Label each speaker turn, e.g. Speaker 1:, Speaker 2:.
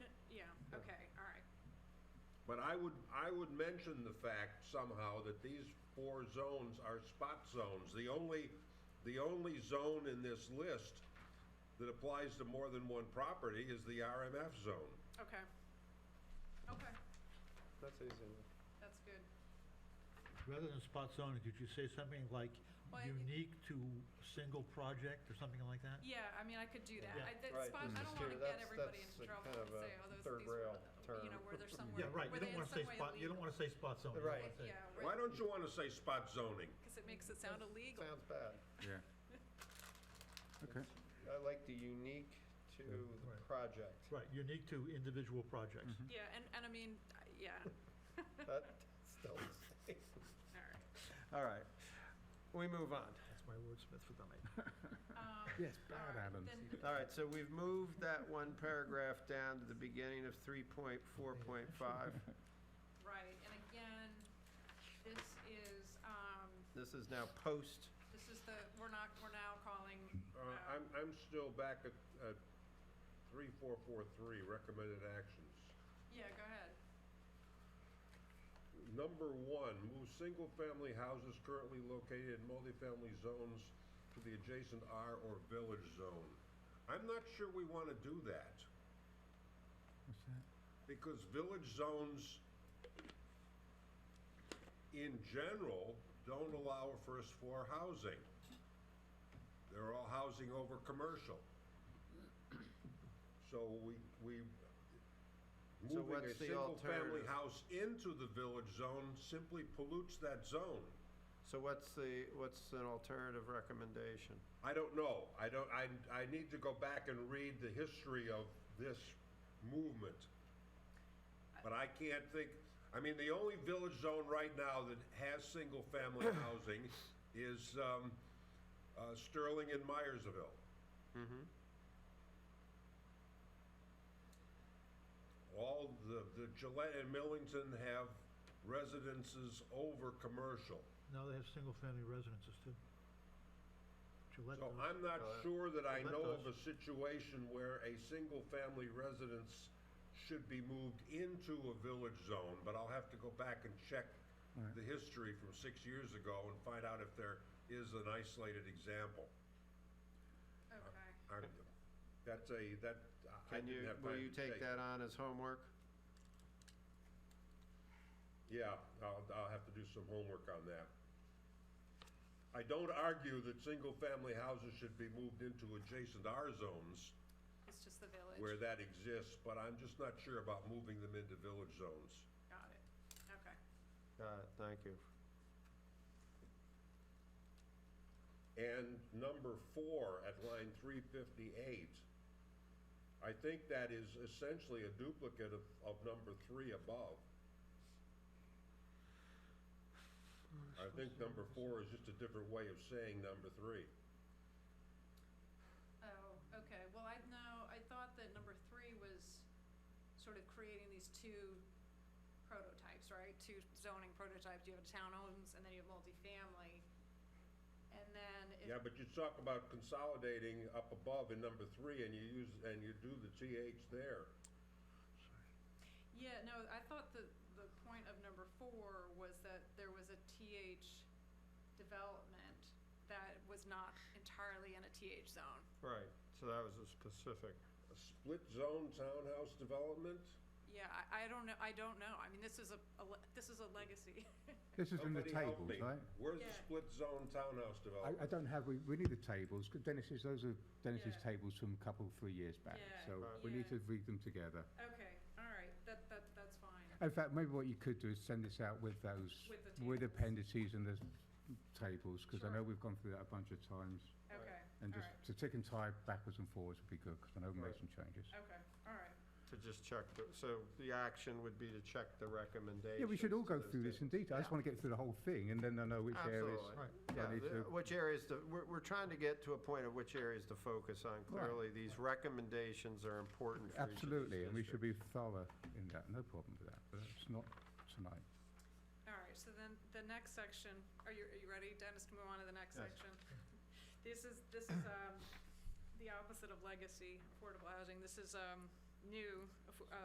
Speaker 1: But I would, I would mention the fact somehow that these four zones are spot zones. The only, the only zone in this list that applies to more than one property is the RMF zone.
Speaker 2: Okay. Okay,
Speaker 3: That's easy enough.
Speaker 2: that's good.
Speaker 4: Rather than spot zoning, could you say something like
Speaker 2: Well, I-
Speaker 4: unique to single project or something like that?
Speaker 2: Yeah, I mean, I could do that.
Speaker 4: Yeah.
Speaker 2: I, that
Speaker 3: Right,
Speaker 2: spot, I
Speaker 3: mm.
Speaker 2: don't wanna
Speaker 3: Here,
Speaker 2: get
Speaker 3: that's-
Speaker 2: everybody
Speaker 3: that's
Speaker 2: into
Speaker 3: a
Speaker 2: trouble
Speaker 3: kind
Speaker 2: and
Speaker 3: of a
Speaker 2: say, oh, those,
Speaker 3: third
Speaker 2: these were,
Speaker 3: rail
Speaker 2: the- you know,
Speaker 3: term.
Speaker 2: where they're somewhere,
Speaker 4: Yeah, right,
Speaker 2: were
Speaker 4: you
Speaker 2: they
Speaker 4: don't
Speaker 2: in
Speaker 4: wanna say
Speaker 2: some way
Speaker 4: spot, you don't
Speaker 2: illegal?
Speaker 4: wanna say spot zoning. you
Speaker 3: Right.
Speaker 4: wanna say-
Speaker 2: Yeah,
Speaker 1: Why
Speaker 2: right,
Speaker 1: don't you wanna say spot zoning?
Speaker 2: cause it makes it sound illegal.
Speaker 3: Sounds bad.
Speaker 5: Yeah. Okay.
Speaker 3: I like the unique to the
Speaker 4: Right.
Speaker 3: project.
Speaker 4: Right, unique to individual projects.
Speaker 2: Yeah, and, and I mean, I- yeah,
Speaker 3: That still the same.
Speaker 2: alright.
Speaker 3: All right, we move on.
Speaker 4: That's my wordsmith for the night.
Speaker 2: Um,
Speaker 5: Yes,
Speaker 2: alright, then-
Speaker 3: All right, so we've moved that one paragraph down to the beginning of three point four point five.
Speaker 2: Right, and again, this is, um,
Speaker 3: This is now post,
Speaker 2: this is the, we're not, we're now calling,
Speaker 1: Uh, I'm, I'm still back at, at three, four, four, three, recommended actions.
Speaker 2: yeah, go ahead.
Speaker 1: Number one, move single-family houses currently located in multifamily zones to the adjacent R or village zone. I'm not sure we want to do that,
Speaker 5: What's that?
Speaker 1: because village zones in general don't allow first floor housing. They're all housing over commercial. So we, we,
Speaker 3: So
Speaker 1: moving a
Speaker 3: what's the
Speaker 1: single-family
Speaker 3: alternative?
Speaker 1: house into the village zone simply pollutes that zone.
Speaker 3: so what's the, what's an alternative recommendation?
Speaker 1: I don't know. I don't, I, I need to go back and read the history of this movement. But I can't think, I mean, the only village zone right now that has single-family housing is, um, uh, Sterling and Myersville.
Speaker 3: Mm-hmm.
Speaker 1: All the, the Gillette and Millington have residences over commercial.
Speaker 4: Now they have single-family residences too. Gillette
Speaker 1: So
Speaker 4: does.
Speaker 1: I'm not
Speaker 3: Uh,
Speaker 1: sure that I
Speaker 4: Gillette
Speaker 1: know of a
Speaker 4: does.
Speaker 1: situation where a single-family residence should be moved into a village zone, but I'll have to go back and check
Speaker 5: Alright.
Speaker 1: the history from six years ago and find out if there is an isolated example.
Speaker 2: Okay,
Speaker 1: I'm- That's a, that, I- I
Speaker 3: Can you,
Speaker 1: didn't have
Speaker 3: will
Speaker 1: time
Speaker 3: you
Speaker 1: to
Speaker 3: take that on as homework?
Speaker 1: Yeah, I'll, I'll have to do some homework on that. I don't argue that single-family houses should be moved into adjacent R zones
Speaker 2: it's just the village.
Speaker 1: where that exists, but I'm just not sure about moving them into village zones.
Speaker 2: Got it, okay.
Speaker 3: Got it, Uh, thank you.
Speaker 1: And number four at line three fifty-eight, I think that is essentially a duplicate of, of number three above. I think number four is just a different way of saying number three.
Speaker 2: Oh, okay, well, I, no, I thought that number three was sort of creating these two prototypes, right? Two zoning prototypes, you have townhomes and then you have multifamily. And then if
Speaker 1: Yeah, but you talk about consolidating up above in number three and you use, and you do the TH there.
Speaker 2: Yeah, no, I thought the, the point of number four was that there was a TH development that was not entirely in a TH zone.
Speaker 3: Right, so that was a specific.
Speaker 1: A split zone townhouse development?
Speaker 2: Yeah, I, I don't know, I don't know, I mean, this is a, a le- this is a legacy.
Speaker 5: This is in the
Speaker 1: Somebody help
Speaker 5: tables,
Speaker 1: me.
Speaker 5: right?
Speaker 1: Where's the
Speaker 2: Yeah.
Speaker 1: split zone townhouse development?
Speaker 5: I, I don't have, we, we need the tables, 'cause Dennis's, those are Dennis's
Speaker 2: Yeah.
Speaker 5: tables from a couple, three years back.
Speaker 2: Yeah,
Speaker 5: So
Speaker 3: Right.
Speaker 5: we need
Speaker 2: yeah.
Speaker 5: to read them together.
Speaker 2: Okay, all right, that, that, that's fine.
Speaker 5: In fact, maybe what you could do is send this out with those,
Speaker 2: With the
Speaker 5: with
Speaker 2: tables.
Speaker 5: appendices and the tables, because I
Speaker 2: Sure.
Speaker 5: know we've gone through that a bunch of times.
Speaker 2: Okay,
Speaker 5: And
Speaker 2: all
Speaker 5: just
Speaker 2: right,
Speaker 5: to tick and tie backwards and forwards would be good, because I know we made
Speaker 3: Right.
Speaker 5: some changes.
Speaker 2: okay, all right,
Speaker 3: To just check, the so the action would be to check the recommendations.
Speaker 5: Yeah, we should all
Speaker 3: to
Speaker 5: go
Speaker 3: those
Speaker 5: through this
Speaker 3: da-
Speaker 5: in detail. I just
Speaker 2: Yeah.
Speaker 5: want to get through the whole thing, and then I know which areas.
Speaker 3: Absolutely.
Speaker 4: Right,
Speaker 3: Yeah,
Speaker 5: I need
Speaker 3: the-
Speaker 5: to-
Speaker 3: which areas, to- we're, we're trying to get to a point of which areas to focus on. Clearly, these recommendations are important for each of these
Speaker 5: Absolutely, and we should
Speaker 3: districts.
Speaker 5: be thorough in that, no problem with that, but it's not tonight.
Speaker 2: all right, so then the next section, are you, are you ready, Dennis, to move on to the next
Speaker 3: Yes.
Speaker 2: section? This is, this is, um, the opposite of legacy affordable housing, this is, um, new, affo- uh,